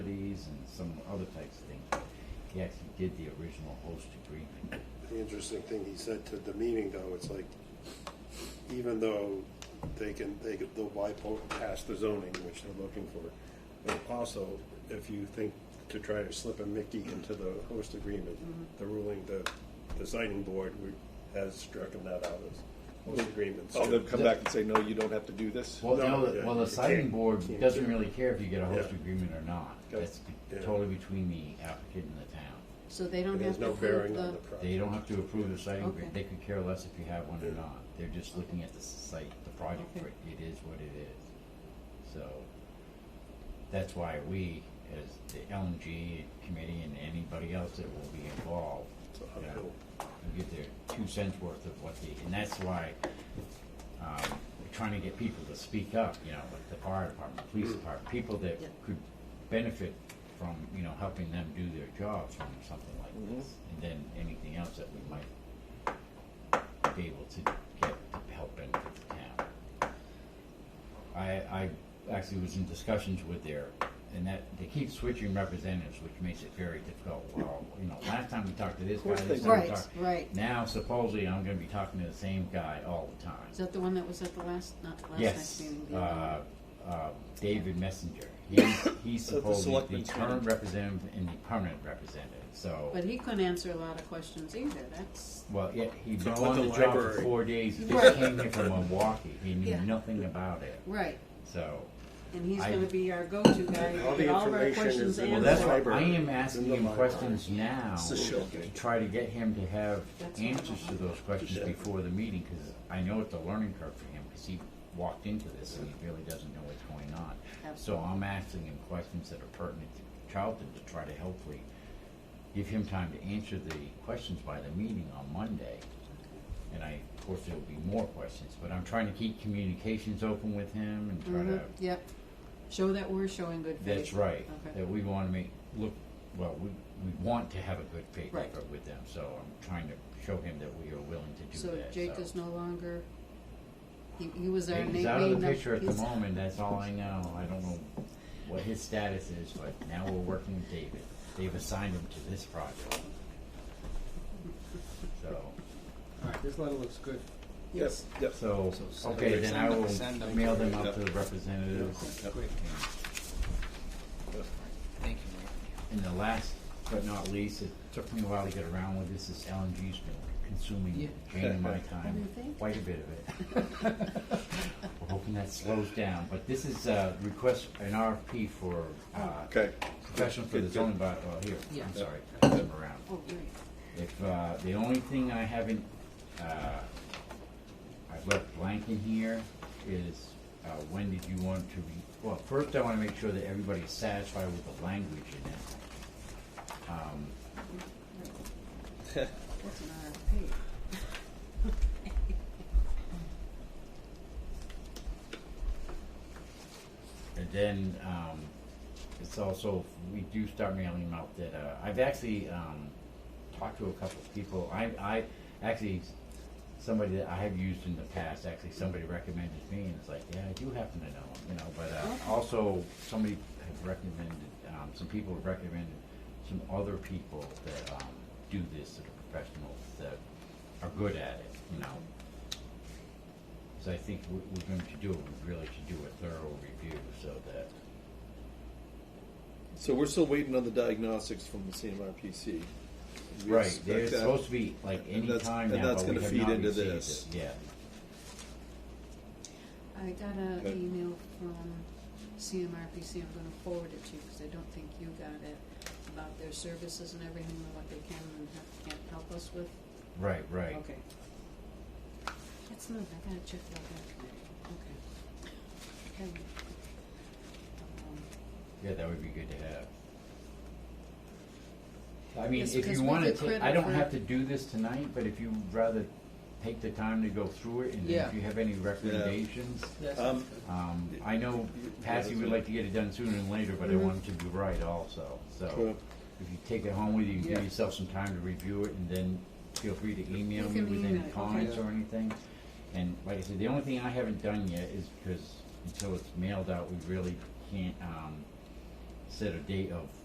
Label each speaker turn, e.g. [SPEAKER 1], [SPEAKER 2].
[SPEAKER 1] trees and some other types of things. He actually did the original host agreement.
[SPEAKER 2] The interesting thing he said to the meeting though, it's like, even though they can, they could, they'll bypass the zoning, which they're looking for. But also, if you think to try to slip a Mickey into the host agreement,
[SPEAKER 3] Mm-hmm.
[SPEAKER 2] the ruling, the, the signing board we- has stricken that out as host agreement.
[SPEAKER 4] Oh,
[SPEAKER 2] So-
[SPEAKER 4] they'll come back and say, no, you don't have to do this?
[SPEAKER 1] Well,
[SPEAKER 2] No,
[SPEAKER 1] no,
[SPEAKER 2] yeah,
[SPEAKER 1] well, the
[SPEAKER 2] you
[SPEAKER 1] siding
[SPEAKER 2] can't-
[SPEAKER 1] board
[SPEAKER 2] can't
[SPEAKER 1] doesn't
[SPEAKER 2] do it.
[SPEAKER 1] really care if you get a host
[SPEAKER 2] Yeah.
[SPEAKER 1] agreement or not.
[SPEAKER 2] That's-
[SPEAKER 1] That's
[SPEAKER 2] yeah.
[SPEAKER 1] totally between the applicant and the town.
[SPEAKER 3] So they don't have
[SPEAKER 2] There's
[SPEAKER 3] to
[SPEAKER 2] no
[SPEAKER 3] approve
[SPEAKER 2] bearing on
[SPEAKER 3] the,
[SPEAKER 2] the project.
[SPEAKER 1] They don't have to approve the siding
[SPEAKER 3] Okay.
[SPEAKER 1] agreement. They could care less if you have one or
[SPEAKER 2] Yeah.
[SPEAKER 1] not. They're just looking at the site, the project for it.
[SPEAKER 3] Okay.
[SPEAKER 1] It is what it is. So that's why we, as the LNG committee and anybody else that will be involved,
[SPEAKER 2] So,
[SPEAKER 1] you know,
[SPEAKER 2] uphill.
[SPEAKER 1] will get their two cents worth of what they, and that's why um, we're trying to get people to speak up, you know, like the fire department, the police department, people that
[SPEAKER 3] Yeah.
[SPEAKER 1] could benefit from, you know, helping them do their jobs from something like
[SPEAKER 3] Mm-hmm.
[SPEAKER 4] Mhm.
[SPEAKER 1] this. And then anything else that we might be able to get to help benefit the town. I, I actually was in discussions with their, and that, they keep switching representatives, which makes it very difficult. Well, you know, last time we talked to this
[SPEAKER 4] Of
[SPEAKER 1] guy,
[SPEAKER 4] course
[SPEAKER 1] this
[SPEAKER 4] they
[SPEAKER 1] time we
[SPEAKER 3] do. Right,
[SPEAKER 1] talked.
[SPEAKER 3] right.
[SPEAKER 1] Now supposedly I'm gonna be talking to the same guy all the time.
[SPEAKER 3] is that the one that was at the last, not the last next
[SPEAKER 1] Yes,
[SPEAKER 3] meeting? the other
[SPEAKER 1] uh,
[SPEAKER 3] one?
[SPEAKER 1] uh, David Messenger. He's, he's
[SPEAKER 4] At the
[SPEAKER 1] supposedly
[SPEAKER 4] selectmen's
[SPEAKER 1] the current
[SPEAKER 4] meeting.
[SPEAKER 1] representative and the permanent representative, so.
[SPEAKER 3] But he couldn't answer a lot of questions either, that's,
[SPEAKER 1] Well, yeah, he'd been
[SPEAKER 2] It's about
[SPEAKER 1] on
[SPEAKER 2] the
[SPEAKER 1] the job for
[SPEAKER 2] library.
[SPEAKER 1] four days, he
[SPEAKER 3] Right.
[SPEAKER 1] just came here from Milwaukee, he knew
[SPEAKER 3] Yeah.
[SPEAKER 1] nothing about it,
[SPEAKER 3] right,
[SPEAKER 1] so.
[SPEAKER 3] and he's
[SPEAKER 1] I-
[SPEAKER 3] gonna be our go-to guy,
[SPEAKER 2] All the
[SPEAKER 3] get all of our
[SPEAKER 2] information
[SPEAKER 3] questions
[SPEAKER 2] is in the
[SPEAKER 1] Well, that's
[SPEAKER 3] answered.
[SPEAKER 1] why I
[SPEAKER 2] library.
[SPEAKER 1] am
[SPEAKER 2] In
[SPEAKER 1] asking
[SPEAKER 2] the
[SPEAKER 1] him
[SPEAKER 2] library.
[SPEAKER 1] questions now
[SPEAKER 4] It's a
[SPEAKER 1] to
[SPEAKER 4] shill
[SPEAKER 1] try to get him to have
[SPEAKER 3] That's what I
[SPEAKER 1] answers to
[SPEAKER 3] want.
[SPEAKER 1] those questions
[SPEAKER 2] Yeah.
[SPEAKER 1] before the meeting, because I know it's a learning curve for him, because he walked into this and he really doesn't know what's going on. So
[SPEAKER 3] Absolutely.
[SPEAKER 1] I'm asking him questions that are pertinent to childhood to try to hopefully give him time to answer the questions by the meeting on Monday. And I, of course, there'll be more questions, but I'm trying to keep communications open with him and try
[SPEAKER 3] Mhm,
[SPEAKER 1] to
[SPEAKER 3] Yep, show that we're showing good faith.
[SPEAKER 1] that's right.
[SPEAKER 3] Okay,
[SPEAKER 1] That we want to make, look, well, we, we want to have a good faith
[SPEAKER 3] Right.
[SPEAKER 1] effort with them, so I'm trying to show him that we are willing to do
[SPEAKER 3] so
[SPEAKER 1] that.
[SPEAKER 3] Jake is no longer, he, he was our name.
[SPEAKER 1] He's out of the picture at the moment, that's all I know. I don't know what his status is, but now we're working with David. They've assigned him to this project. So,
[SPEAKER 5] Alright, this letter looks good.
[SPEAKER 4] Yes, yes.
[SPEAKER 1] so,
[SPEAKER 5] So send
[SPEAKER 1] okay,
[SPEAKER 5] them-
[SPEAKER 1] then I will
[SPEAKER 5] send them-
[SPEAKER 1] mail them
[SPEAKER 4] Yep.
[SPEAKER 1] out to the representatives.
[SPEAKER 4] Yep.
[SPEAKER 5] Great.
[SPEAKER 1] And-
[SPEAKER 5] Thank you, Mike.
[SPEAKER 1] And the last but not least, it took me a while to get around with this, is LNG's been consuming
[SPEAKER 5] Yeah.
[SPEAKER 1] Jane and my
[SPEAKER 3] What do
[SPEAKER 1] time,
[SPEAKER 3] you think?
[SPEAKER 1] quite a bit of it. We're hoping that slows down, but this is a request, an RFP for, uh,
[SPEAKER 4] Okay,
[SPEAKER 1] professional for the
[SPEAKER 4] Good, good.
[SPEAKER 1] zoning bylaw, oh, here,
[SPEAKER 5] Yeah.
[SPEAKER 1] I'm sorry, pass them around.
[SPEAKER 3] Oh, great.
[SPEAKER 1] If, uh, the only thing I haven't, uh, I've left blank in here is, uh, when did you want to be, well, first I wanna make sure that everybody's satisfied with the language in it. Um,
[SPEAKER 3] That's an RFP.
[SPEAKER 1] And then um, it's also we do start mailing them out that uh, I've actually um, talked to a couple of people. I I actually somebody that I have used in the past actually somebody recommended me and it's like yeah I do happen to know him you know but
[SPEAKER 3] Okay.
[SPEAKER 1] uh, also somebody had recommended um, some people have recommended some other people that um, do this that are professionals that are good at it you know. So I think what we're going to do, we really should do a thorough review so that,
[SPEAKER 4] so we're still waiting on the diagnostics from the CMRPC. We
[SPEAKER 1] right,
[SPEAKER 4] expect
[SPEAKER 1] there's
[SPEAKER 4] that.
[SPEAKER 1] supposed to be like
[SPEAKER 4] uh, And
[SPEAKER 1] any
[SPEAKER 4] that's-
[SPEAKER 1] time
[SPEAKER 4] and
[SPEAKER 1] now,
[SPEAKER 4] that's
[SPEAKER 1] but we
[SPEAKER 4] gonna
[SPEAKER 1] have
[SPEAKER 4] feed
[SPEAKER 1] not
[SPEAKER 4] into
[SPEAKER 1] received
[SPEAKER 4] this.
[SPEAKER 1] it, yeah.
[SPEAKER 3] I got an
[SPEAKER 4] Okay.
[SPEAKER 3] email from CMRPC, I'm gonna forward it to you, because I don't think you got it, about their services and everything, and what they can and ha- can't help us with.
[SPEAKER 1] Right, right.
[SPEAKER 3] Okay. That's not, I gotta check that out, okay. Okay. Um,
[SPEAKER 1] Yeah, that would be good to have. I mean,
[SPEAKER 3] Yes,
[SPEAKER 1] if
[SPEAKER 3] because
[SPEAKER 1] you
[SPEAKER 3] we
[SPEAKER 1] wanna,
[SPEAKER 3] could
[SPEAKER 1] ta-
[SPEAKER 3] credit
[SPEAKER 1] I don't
[SPEAKER 3] for-
[SPEAKER 1] have to do this tonight, but if you'd rather take the time to go through it and then
[SPEAKER 5] Yeah.
[SPEAKER 1] if you have any recommendations,
[SPEAKER 4] Um,
[SPEAKER 1] um, I know Patsy would like to get it done sooner than later, but I
[SPEAKER 3] Mhm.
[SPEAKER 1] want it to be right also, so.
[SPEAKER 4] Cool.
[SPEAKER 1] If you take it home with you, you
[SPEAKER 5] Yeah.
[SPEAKER 1] give yourself some time to review it, and then feel free to email
[SPEAKER 3] You
[SPEAKER 1] me
[SPEAKER 3] can
[SPEAKER 1] with
[SPEAKER 3] email
[SPEAKER 1] any
[SPEAKER 3] it, okay.
[SPEAKER 1] comments or anything. And like I said, the only thing I haven't done yet is because until it's mailed out, we really can't, um, set a date of